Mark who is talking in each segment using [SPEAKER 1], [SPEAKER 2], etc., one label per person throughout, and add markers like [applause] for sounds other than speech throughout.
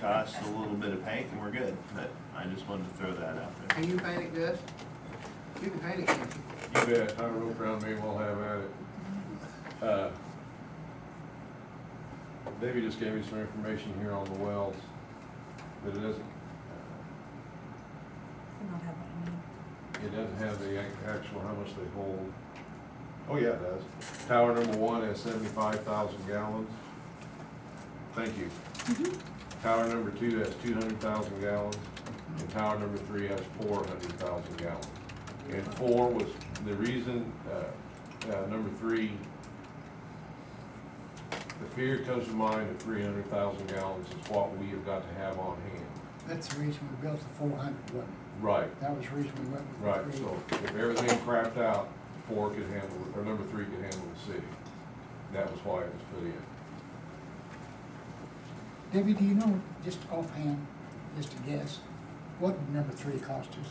[SPEAKER 1] cost, a little bit of paint, and we're good, but I just wanted to throw that out there.
[SPEAKER 2] Can you paint it good? You can paint it, can't you?
[SPEAKER 3] You bet, I rope around me, we'll have at it. Uh, Debbie just gave me some information here on the wells, but it doesn't,
[SPEAKER 4] I don't have what I need.
[SPEAKER 3] it doesn't have the ac- actual, how much they hold. Oh, yeah, it does. Tower number one has seventy-five thousand gallons. Thank you. Tower number two has two hundred thousand gallons, and tower number three has four hundred thousand gallons. And four was, the reason, uh, uh, number three, the fear comes to mind of three hundred thousand gallons is what we have got to have on hand.
[SPEAKER 5] That's the reason we built the four hundred, wasn't
[SPEAKER 3] Right,
[SPEAKER 5] it? That was the reason we went with
[SPEAKER 3] right,
[SPEAKER 5] the three.
[SPEAKER 3] so if everything crapped out, four could handle, it, or number three could handle the city. That was why it was put in.
[SPEAKER 5] Debbie, do you know, just offhand, just a guess, what would number three cost us?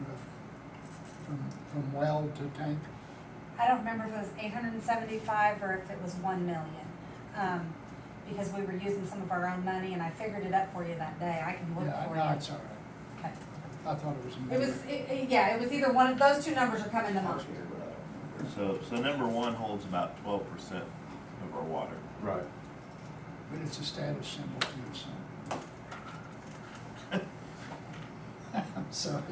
[SPEAKER 5] Rough. From, from well to tank?
[SPEAKER 4] I don't remember if it was eight hundred and seventy-five or if it was one million. Um, because we were using some of our own money and I figured it up for you that day. I can look
[SPEAKER 5] Yeah,
[SPEAKER 4] for you.
[SPEAKER 5] no, it's all right.
[SPEAKER 4] Okay.
[SPEAKER 5] I thought it was a
[SPEAKER 4] It
[SPEAKER 5] number.
[SPEAKER 4] was, it, it- yeah, it was either one of, those two numbers are coming to mind.
[SPEAKER 1] So, so number one holds about twelve percent of our water.
[SPEAKER 3] Right.
[SPEAKER 5] But it's a status symbol too, so. [laughs] I'm sorry.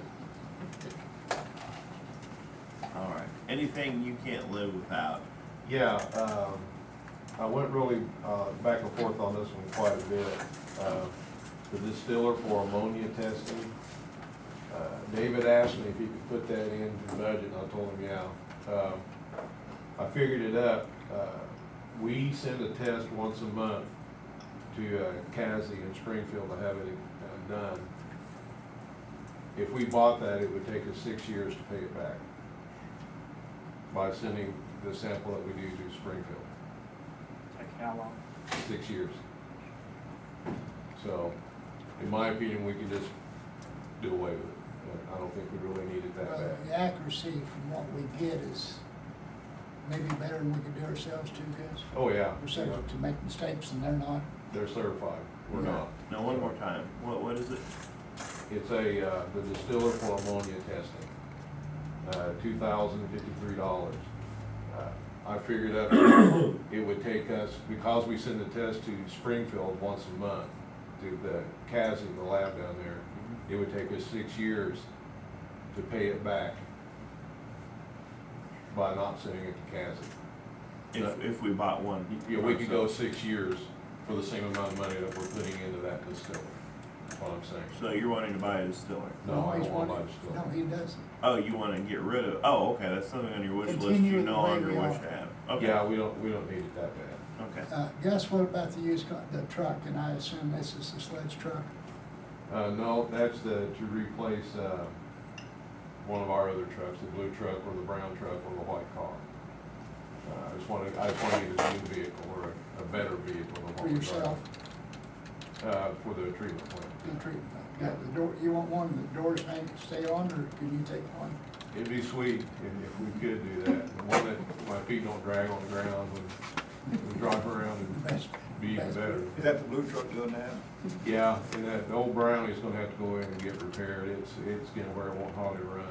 [SPEAKER 1] All right. Anything you can't live without,
[SPEAKER 3] Yeah, um, I went really, uh, back and forth on this one quite a bit. Uh, The distiller for ammonia testing, uh, David asked me if he could put that into the budget, and I told him, yeah. Um, I figured it up, uh, we send a test once a month to, uh, Cassie in Springfield to have it, uh, done. If we bought that, it would take us six years to pay it back by sending the sample that we do to Springfield,
[SPEAKER 6] Like how long?
[SPEAKER 3] six years. So, in my opinion, we could just do away with it. I don't think we really need it that
[SPEAKER 5] Well,
[SPEAKER 3] bad.
[SPEAKER 5] The accuracy from what we get is maybe better than we could do ourselves too, guys.
[SPEAKER 3] Oh, yeah,
[SPEAKER 5] We're subject to make mistakes and they're not.
[SPEAKER 3] they're certified, we're
[SPEAKER 5] Yeah.
[SPEAKER 3] not.
[SPEAKER 1] no, one more time, what, what is it?
[SPEAKER 3] It's a, uh, the distiller for ammonia testing, uh, two thousand fifty-three dollars. Uh, I figured out it would take us, because we send the test to Springfield once a month, to the CASI, the lab down there, it would take us six years to pay it back by not sending it to CASI.
[SPEAKER 1] If, if we bought one.
[SPEAKER 3] Yeah, we could go six years for the same amount of money that we're putting into that distiller, that's what I'm saying.
[SPEAKER 1] So you're wanting to buy a distiller?
[SPEAKER 3] No, I
[SPEAKER 5] he's
[SPEAKER 3] don't want
[SPEAKER 5] wanted-
[SPEAKER 3] my distiller.
[SPEAKER 5] No, he doesn't.
[SPEAKER 1] Oh, you wanna get rid of, oh, okay, that's something on your wish list
[SPEAKER 5] Continue
[SPEAKER 1] you
[SPEAKER 5] it the
[SPEAKER 1] no
[SPEAKER 5] way
[SPEAKER 1] longer
[SPEAKER 5] we
[SPEAKER 1] wish
[SPEAKER 5] are.
[SPEAKER 1] to have. Okay,
[SPEAKER 3] Yeah, we don't, we don't need it that bad.
[SPEAKER 1] Okay.
[SPEAKER 5] Uh, Gus, what about the used car, the truck, and I assume this is the sledge truck?
[SPEAKER 3] Uh, no, that's the, to replace, uh, one of our other trucks, the blue truck or the brown truck or the white car. Uh, I just wanted, I just wanted a new vehicle or a- a better vehicle than what
[SPEAKER 5] For
[SPEAKER 3] we
[SPEAKER 5] yourself,
[SPEAKER 3] Uh, for the treatment plant.
[SPEAKER 5] the treatment, got the door, you want one, the doors hang, stay on, or can you take one?
[SPEAKER 3] It'd be sweet if, if we could do that, the one that my feet don't drag on the ground when, when drive around and
[SPEAKER 5] Best-
[SPEAKER 3] be even
[SPEAKER 5] best-
[SPEAKER 3] better.
[SPEAKER 6] Is that the blue truck doing that?
[SPEAKER 3] Yeah, and that old Brownie's gonna have to go in and get repaired, it's, it's getting where it won't hardly run.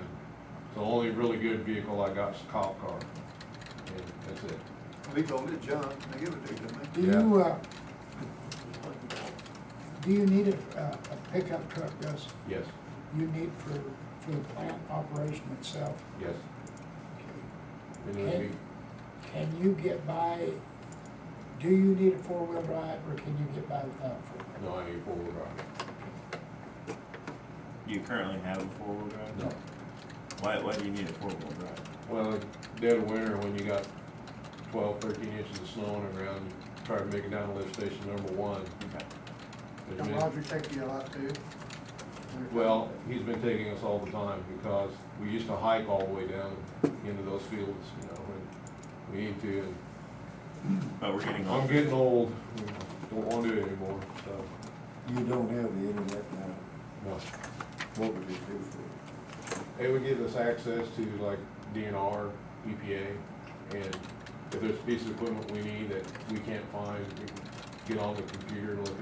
[SPEAKER 3] The only really good vehicle I got is a cop car, and that's it.
[SPEAKER 6] We told it junk, they give it to you, didn't
[SPEAKER 5] Do
[SPEAKER 3] Yeah.
[SPEAKER 5] you, uh, do you need a, a a pickup truck, Gus?
[SPEAKER 3] Yes,
[SPEAKER 5] You need for, for the plant operation itself?
[SPEAKER 3] yes.
[SPEAKER 5] Okay.
[SPEAKER 3] It would be,
[SPEAKER 5] Can you get by, do you need a four-wheel drive, or can you get by without a four-wheel?
[SPEAKER 3] no, I need four-wheel drive.
[SPEAKER 1] You currently have a four-wheel drive?
[SPEAKER 3] No.
[SPEAKER 1] Why, why do you need a four-wheel drive?
[SPEAKER 3] Well, dead of winter, when you got twelve, thirteen inches of snow on the ground, you try to make it down to lift station number one.
[SPEAKER 1] Okay.
[SPEAKER 3] It's
[SPEAKER 6] Don't
[SPEAKER 3] been-
[SPEAKER 6] Roger take you a lot too?
[SPEAKER 3] Well, he's been taking us all the time because we used to hike all the way down into those fields, you know, when we need to, and
[SPEAKER 1] But we're getting
[SPEAKER 3] I'm
[SPEAKER 1] older.
[SPEAKER 3] getting old, don't wanna do it anymore, so,
[SPEAKER 7] You don't have the internet now,
[SPEAKER 3] no.
[SPEAKER 7] what would it do for
[SPEAKER 3] It would give us access to like DNR, EPA, and if there's a piece of equipment we need that we can't find, we can get on the computer and look